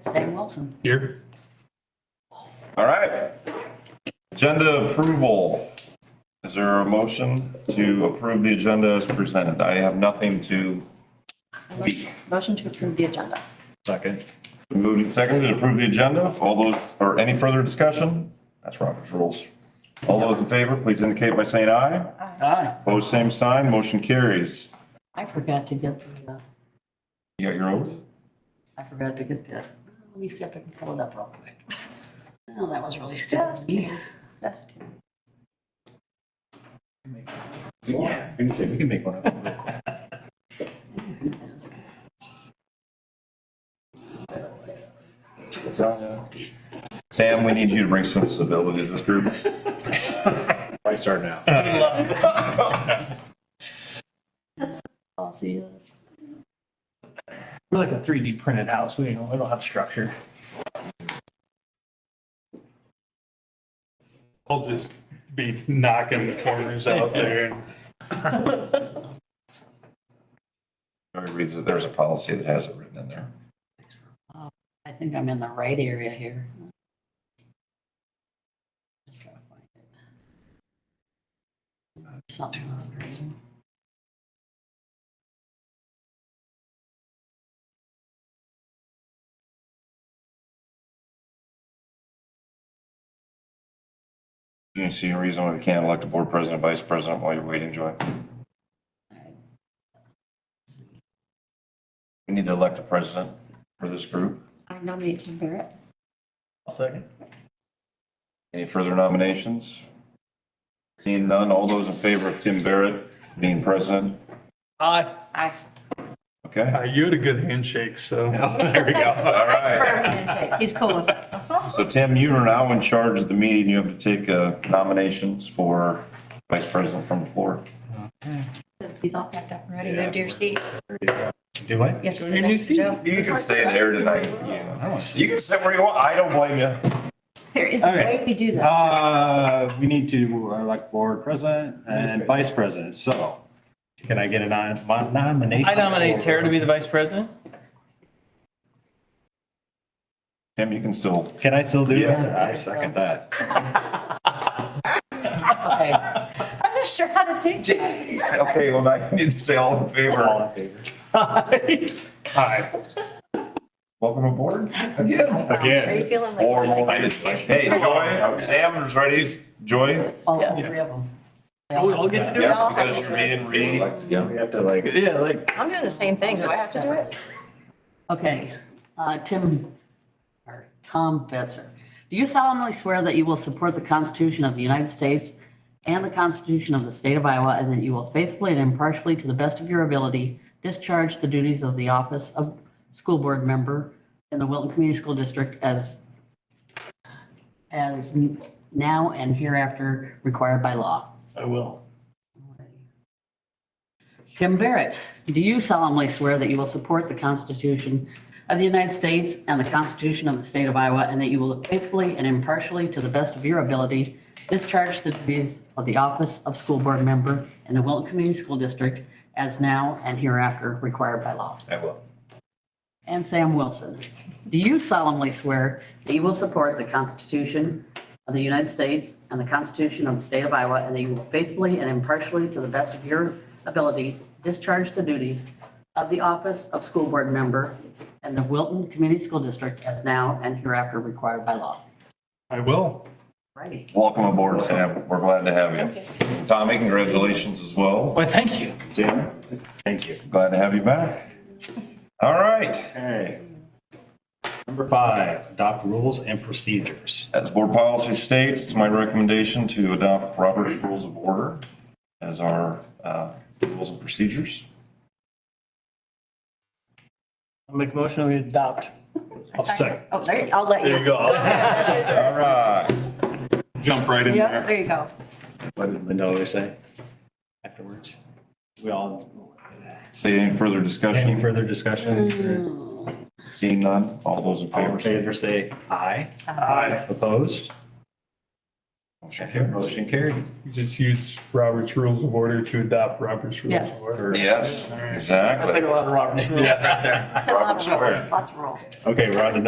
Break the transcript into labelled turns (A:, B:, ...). A: Sam Wilson.
B: Here.
C: All right. Agenda approval. Is there a motion to approve the agenda as presented? I have nothing to speak.
A: Motion to approve the agenda.
C: Second. Moved and seconded to approve the agenda. All those, or any further discussion? That's Robert's rules. All those in favor, please indicate by saying aye.
B: Aye.
C: Opposed, same sign. Motion carries.
A: I forgot to get the, uh,
C: You got your oath?
A: I forgot to get the, let me see if I can pull it up real quick. Oh, that was really stupid. of me. That's,
C: Yeah. We can say, we can make one up. Sam, we need you to bring some civility to this group.
D: I start now.
A: I'll see you.
B: We're like a three D printed house. We don't, we don't have structure.
E: I'll just be knocking the corners out there and
C: Jerry reads that there's a policy that has it written in there.
A: I think I'm in the right area here. Just gotta find it. Something else.
C: Do you see a reason why we can't elect a board president, vice president while you're waiting, Joy? We need to elect a president for this group.
A: I nominate Tim Barrett.
B: I'll second.
C: Any further nominations? Seeing none, all those in favor of Tim Barrett being president?
B: Aye.
A: I.
C: Okay,
E: uh, you had a good handshake, so.
B: There we go.
C: all right.
A: He's cool with it.
C: So Tim, you are now in charge of the meeting. You have to take uh, nominations for vice president from the floor.
A: He's all packed up and ready. Move to your seat.
D: Do I?
A: You have to sit next to Joe.
C: You can stay in there tonight. You can sit where you want. I don't blame you.
A: There is a
D: Okay.
A: way we do that.
D: Uh, we need to elect board president and vice president, so can I get a nom- mon- nomination?
B: I nominate Tara to be the vice president.
C: Tim, you can still.
D: Can I still do it?
C: Yeah.
D: I second that.
A: Okay. I'm not sure how to take it.
C: Okay, well, now you need to say all in
D: All
C: favor.
D: in favor?
B: Aye.
C: Welcome aboard again.
A: Are you
D: Again.
A: feeling like?
C: Or, hey, Joy, Sam's ready. Joy?
A: All three of them. They all-
B: We'll all get to do it.
C: Yeah, because you're being re.
D: Yeah, we have to like. Yeah, like.
F: I'm doing the same thing. Do I have to do it?
A: Okay, uh, Tim, or Tom Betzer, do you solemnly swear that you will support the Constitution of the United States and the Constitution of the State of Iowa, and that you will faithfully and impartially, to the best of your ability, discharge the duties of the office of school board member in the Wilton Community School District as, as now and hereafter required by law?
B: I will.
A: Tim Barrett, do you solemnly swear that you will support the Constitution of the United States and the Constitution of the State of Iowa, and that you will faithfully and impartially, to the best of your ability, discharge the duties of the office of school board member in the Wilton Community School District as now and hereafter required by law?
C: I will.
A: And Sam Wilson, do you solemnly swear that you will support the Constitution of the United States and the Constitution of the State of Iowa, and that you will faithfully and impartially, to the best of your ability, discharge the duties of the office of school board member in the Wilton Community School District as now and hereafter required by law?
E: I will.
A: Righty.
C: Welcome aboard, Sam. We're glad to have you. Tommy, congratulations as well.
B: Why, thank you.
C: Tim,
D: Thank you.
C: glad to have you back. All right.
D: Okay. Number five, adopt rules and procedures.
C: As board policy states, it's my recommendation to adopt Robert's Rules of Order as our uh, rules and procedures.
B: I'll make a motion to adopt.
D: I'll second.
A: Oh, there you go.
F: I'll let
E: There
F: you.
E: you go.
C: All right.
E: Jump right in
A: Yep,
E: there.
A: there you go.
D: What did Linda always say afterwards? We all,
C: See any further
D: any
C: discussion?
D: further discussion?
C: Seeing none, all those in
D: All in
C: favor? say
D: favor, say aye.
E: Aye.
D: Opposed?
C: Motion carries.
D: Motion carried.
E: Just use Robert's Rules of Order to adopt Robert's Rules of
A: Yes.
E: Order.
C: Yes,
E: All right.
B: That's like
C: exactly.
B: a lot of Robert's rules right there.
F: It's a lot
C: Robert's
F: of
C: Square.
F: rules, lots of rules.
D: Okay, we're on to